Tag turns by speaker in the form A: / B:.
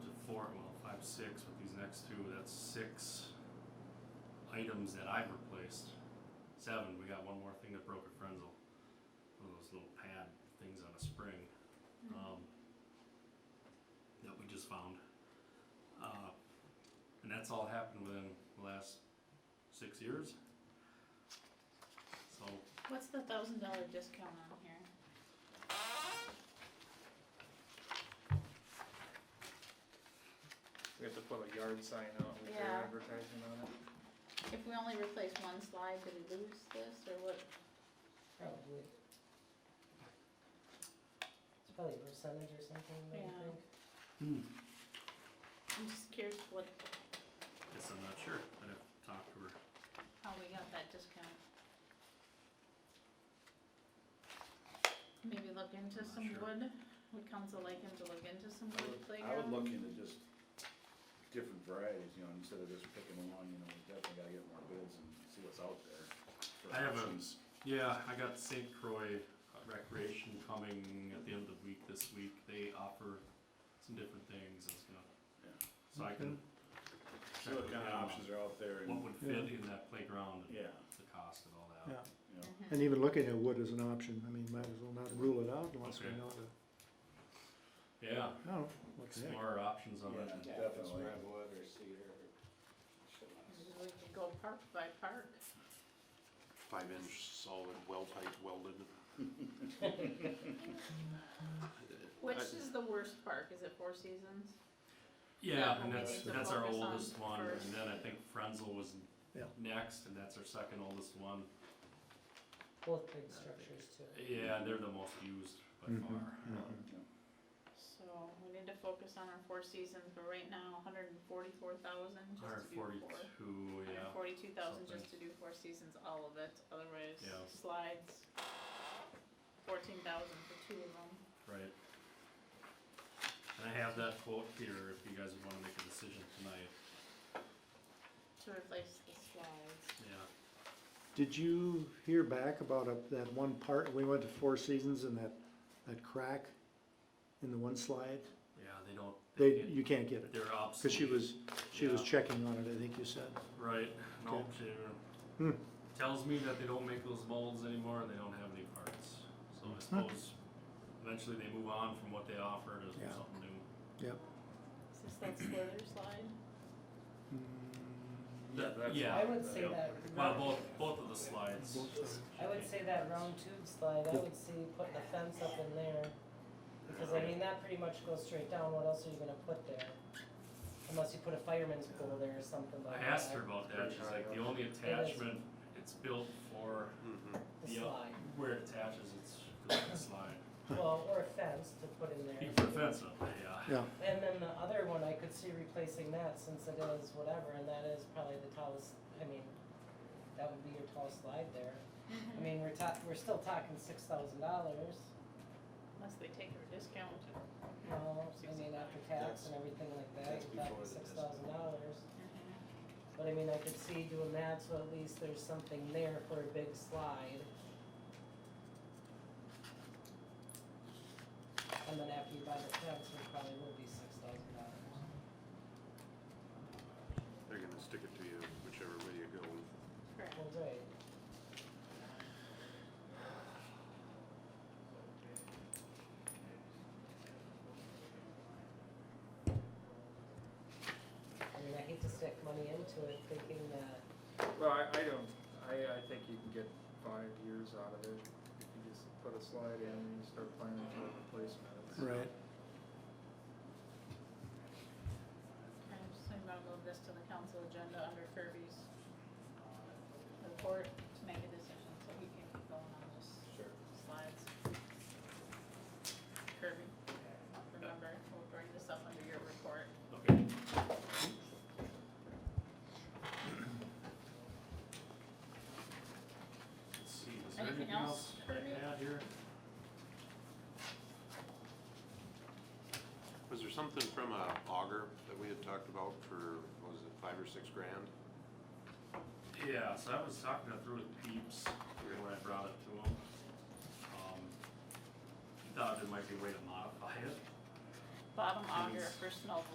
A: tab six with these next two, that's six items that I've replaced. Seven, we got one more thing that broke at Frenzel. One of those little pad things on a spring. Um, that we just found. Uh, and that's all happened within the last six years. So,
B: What's the thousand dollar discount on here?
C: We have to put a yard sign out with your
B: Yeah.
C: advertising on it.
B: If we only replace one slide, did we lose this or what?
D: Probably. It's probably a percentage or something, I would
B: Yeah.
D: think.
B: I'm just curious what,
A: guess I'm not sure. I'd have to talk to her.
B: how we got that discount. Maybe look into
A: I'm not
B: some
A: sure.
B: wood, would council like him to look into some
E: I
B: wood
E: would- I would
B: playground?
E: look into just different varieties, you know, instead of just picking one, you know, we definitely gotta get more bids and see what's out there. for
A: I have a-
E: options.
A: Yeah, I got St. Croix Recreation coming at the end of the week this week. They offer some different things. It's gonna,
E: Yeah.
A: so I can
E: See what kind of options are out there
A: what
E: and,
A: would fit in that playground and
E: yeah,
A: the cost and all
F: Yeah.
A: that.
E: you know,
B: Mhm.
F: And even looking at wood as an option, I mean, might as well not rule it out unless we
A: Okay.
F: know the,
A: Yeah,
F: I don't know, what the heck.
A: explore options on it.
E: yeah, definitely.
G: or cedar
B: We could go park by park.
G: Five inch solid, well pipe welded.
B: Which is the worst park, is it Four Seasons?
A: Yeah,
B: Yeah,
A: and
B: we
A: that's,
B: need to
A: that's our
B: focus on
A: oldest one,
B: first.
A: and then I think Frenzel was
F: Yeah.
A: next, and that's our second oldest one.
D: Both big structures too.
A: Yeah, and they're the most used by
F: Mhm,
A: far.
B: So we need to focus on our Four Seasons, but right now, hundred and forty-four thousand
A: Hundred
B: just to do four.
A: forty-two,
B: Hundred
A: yeah.
B: and forty-two thousand
A: something.
B: just to do Four Seasons, all of it, otherwise
A: Yeah.
B: slides, fourteen thousand for two of them.
A: Right. And I have that quote here if you guys wanna make a decision tonight,
B: To replace the slides.
A: yeah.
F: Did you hear back about a- that one part, we went to Four Seasons and that, that crack in the one slide?
A: Yeah, they don't,
F: They,
A: they
F: you can't get
A: get,
F: it,
A: they're
F: cause
A: obsolete.
F: she was, she was
A: Yeah.
F: checking on it, I think you said.
A: Right, no, she
F: Hmm.
A: tells me that they don't make those molds anymore and they don't have any parts. So
F: Hmm.
A: I suppose eventually they move on from what they offer to
F: Yeah.
A: something new.
B: Is this that slither slide?
A: Yeah,
E: Yeah, that's-
A: yeah.
D: I would say
E: Yeah.
D: that.
A: Well,
D: round-
A: both, both of the slides.
D: I would say that round tube slide, I would say putting a fence up in there. Because I mean, that pretty much goes straight down, what else are you gonna put there? Unless you put a fireman's pole there or something like
A: I
D: that.
A: asked her about that, she's like, the only attachment, it's built for
D: The
A: yeah.
D: slide,
A: where it attaches, it's built to slide.
D: well, or a fence to put in there.
A: You put a fence up, yeah.
F: Yeah,
D: And then the other one, I could see replacing that since it is whatever, and that is probably the tallest, I mean, that would be your tallest slide there.
B: Mm-hmm.
D: I mean, we're ta- we're still talking six thousand dollars,
B: Unless they take her discount.
D: you know, I mean, after tax and everything like that,
E: That's
D: you're
E: before
D: talking
E: the
D: six
E: discount.
D: thousand dollars.
B: Mm-hmm.
D: But I mean, I could see doing that, so at least there's something there for a big slide. And then after you buy the fence, it probably will be six thousand dollars.
G: They're gonna stick it to you whichever way you go.
B: Correct.
D: Well, right. I mean, I hate to stick money into it thinking that
C: Well, I, I don't, I, I think you can get five years out of it if you just put a slide in and you start planning for replacements.
F: right.
B: I'm just thinking about move this to the council agenda under Kirby's uh, report to make a decision, so he can keep going on this
E: Sure.
B: slides. Kirby, remember, we'll bring this up under your report.
A: uh, Okay, let's see, is there
B: Anything
A: anything
B: else,
A: else I
B: Kirby?
A: had here?
G: Was there something from a auger that we had talked about for, what was it, five or six grand?
A: Yeah, so I was talking it through with Peeps when I brought it to him. Um, he thought there might be a way to modify it.
B: Bottom auger
A: Please.
B: for snow